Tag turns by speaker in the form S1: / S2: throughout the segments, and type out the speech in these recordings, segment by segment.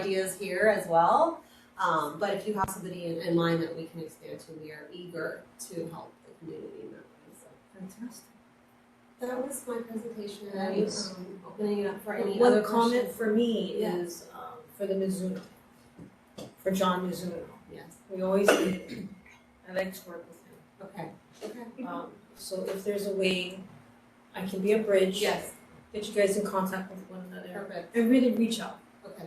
S1: ideas here as well. Um, but if you have somebody in, in mind that we can expand to, we are eager to help the community in that way. So
S2: Fantastic.
S1: that was my presentation.
S2: Nice.
S1: Um, opening it up for any other
S2: One comment
S1: comments.
S2: for me
S1: Yeah.
S2: is, um, for the Mizuno, for John Mizuno.
S1: Yes.
S2: We always, I like to work with him.
S1: Okay. Okay.
S2: Um, so if there's a way I can be a bridge.
S1: Yes.
S2: Get you guys in contact with one another.
S1: Perfect.
S2: And really reach out
S1: Okay.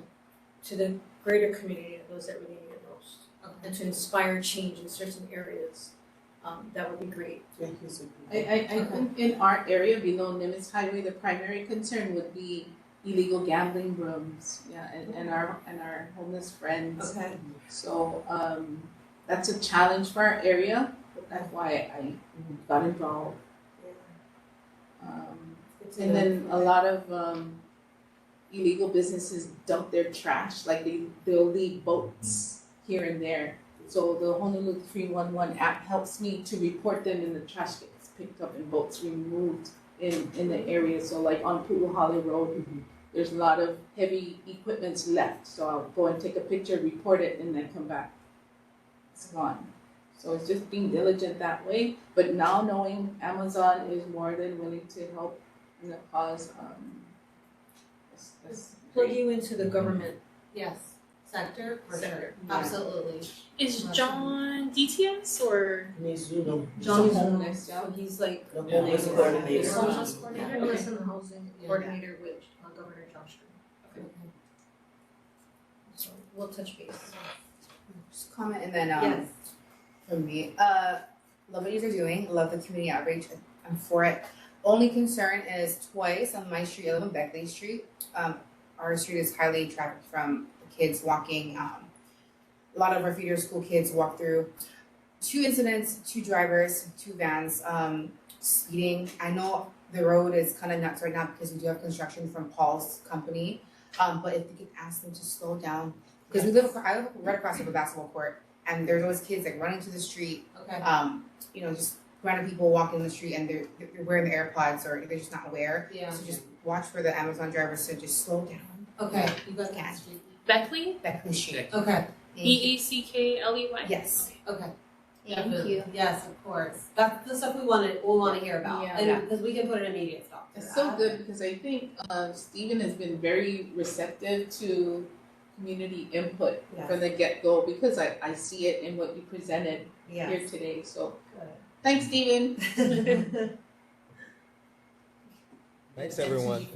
S2: to the greater community of those that really need it most.
S1: Okay.
S2: And to inspire change in certain areas, um, that would be great.
S3: I, I, I think in our area below Nimitz Highway, the primary concern would be illegal gambling rooms, yeah, and, and our, and our homeless friends.
S1: Okay.
S3: So, um, that's a challenge for our area, that's why I got involved. Um, and then a lot of, um, illegal businesses dump their trash, like they, they'll leave boats here and there. So the Honolulu three one one app helps me to report them and the trash gets picked up and boats removed in, in the area, so like on Puhali Road, there's a lot of heavy equipments left, so I'll go and take a picture, report it, and then come back. It's gone. So it's just being diligent that way, but now knowing Amazon is more than willing to help in the cause, um, that's, that's
S2: Plug
S3: great.
S2: you into the government
S1: Yes. Sector for sure.
S2: sector.
S1: Absolutely.
S4: Is
S1: Awesome.
S4: John DTS or
S5: Mizuno,
S2: John
S3: Some
S2: Mizuno,
S3: homeless, yeah.
S2: so he's like
S5: the homeless coordinator.
S2: Homeless
S1: coordinator?
S2: homeless and housing
S1: Yeah.
S2: coordinator with uh, Governor John Stern.
S1: Okay.
S2: So we'll touch base.
S6: Just comment and then um
S1: Yes.
S6: from me. Uh love what you guys are doing, love the community outreach, I'm for it. Only concern is twice on my street, I live on Beckley Street. Um our street is highly trafficked from kids walking, um a lot of our feeder school kids walk through. Two incidents, two drivers, two vans, um speeding. I know the road is kind of nuts right now because we do have construction from Paul's company. Um but if we can ask them to slow down, because we live, acro- I live right across from a basketball court and there's always kids like running to the street.
S1: Okay.
S6: Um, you know, just random people walking in the street and they're they're wearing the AirPods or they're just not aware.
S1: Yeah.
S6: So just watch for the Amazon drivers to just slow down.
S1: Okay. You got
S6: Yeah.
S1: that. Street.
S4: Beckley?
S6: That cliche.
S1: Okay.
S4: B A C K L E Y?
S6: Yes.
S1: Okay.
S6: Thank you.
S1: Yes, of course. That's the stuff we wanted, we wanna hear about,
S3: Yeah.
S1: and, because we can put an immediate stop to that.
S3: It's so good because I think uh, Stephen has been very receptive to community input
S1: Yes.
S3: from the get go because I, I see it in what you presented
S6: Yeah.
S3: here today. So
S2: Good.
S3: thanks, Stephen.
S7: Thanks, everyone.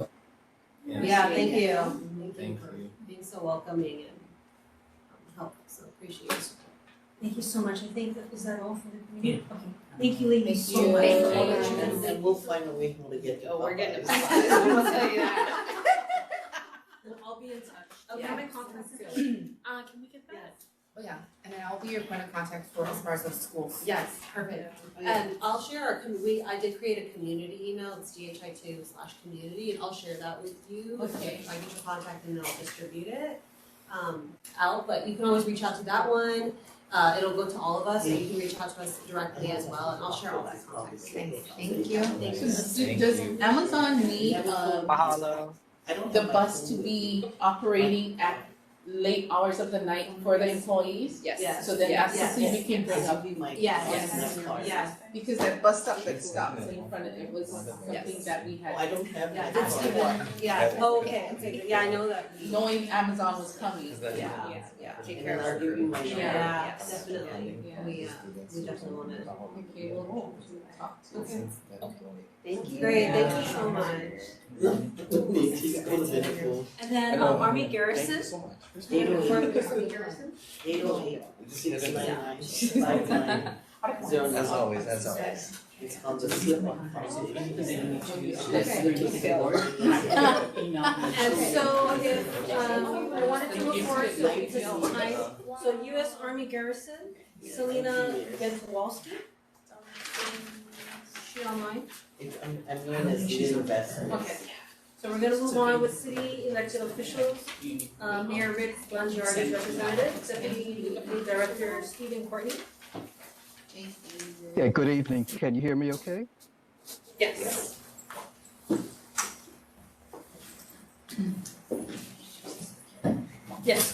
S1: Yeah, thank you.
S7: Thank
S1: for
S7: you.
S1: Being so welcoming and um, helpful, so appreciate your support.
S2: Thank you so much. I think that is that all for the community. Okay. Thank you, ladies, so
S3: Thank you.
S2: much.
S3: Thank
S2: for all that
S4: you.
S2: did.
S5: And we'll find a way how to get the
S3: Oh, we're getting
S5: Popeyes.
S3: a
S6: I'll tell you that.
S1: I'll be in touch.
S6: Okay.
S1: Okay, my conference is
S4: Uh, can we get that?
S6: Oh yeah. And then I'll be your point of contact for as far as the schools.
S1: Yes, perfect. And I'll share our, com- we, I did create a community email, it's DHI two slash community, and I'll share that with you.
S2: Okay.
S1: If I get your contact and then I'll distribute it, um, out, but you can always reach out to that one. Uh, it'll go to all of us, so you can reach out to us directly as well, and I'll share all that contact. with you.
S6: Thanks. Thank you.
S1: Thank you.
S3: Does,
S7: Thank
S3: does
S7: you.
S3: Amazon need um,
S5: I don't
S3: the
S5: have my
S3: bus to
S5: phone.
S3: be operating at late hours of the night for the employees?
S1: Yes.
S3: So then that's
S1: Yes.
S3: something we can bring
S5: That'll
S3: up
S5: be my.
S1: Yes.
S3: Yes.
S5: my card.
S1: Yes.
S3: because that bus stop that stops in front of it was something
S7: Yes.
S3: that we
S5: Oh, I
S3: had.
S5: don't have
S1: Yeah,
S5: my
S1: that's
S5: card.
S1: good. Yeah,
S7: Yeah.
S1: oh, okay, okay, good. yeah, I know that.
S3: Knowing Amazon was coming.
S7: Is that-
S1: Yeah, yeah.
S6: Take
S5: And
S6: care
S5: then
S6: of
S5: I'll
S6: our
S5: give you
S6: group.
S5: my.
S3: Yeah.
S5: number.
S1: Yeah,
S7: Yes.
S1: definitely.
S3: Yeah.
S1: We, uh, we definitely wanna.
S3: Okay, we'll talk to
S1: Okay.
S6: Thank you.
S1: Great, thank you so much.
S5: They just go to the school.
S8: And then
S7: Hello.
S8: um, Army
S7: Thank you
S8: Garrison,
S7: so much.
S5: Eight oh eight,
S2: Garrison?
S5: eight oh eight, oh six nine nine, five nine, zero nine.
S7: As always, as always.
S5: It's on the slip on. oh
S2: And so if, um, I wanted to
S3: Thank you.
S2: report to
S3: Thank
S2: because
S3: you.
S2: it's time, so US Army Garrison, Selena Gentwalski, is she online?
S5: It's, I'm, I'm known as Little Best.
S2: Okay, so we're gonna move on with city elected officials, uh, Mayor Rick Blangiardi's representative, Deputy Director Stephen Courtney.
S9: Yeah, good evening. Can you hear me okay?
S2: Yes. Yes,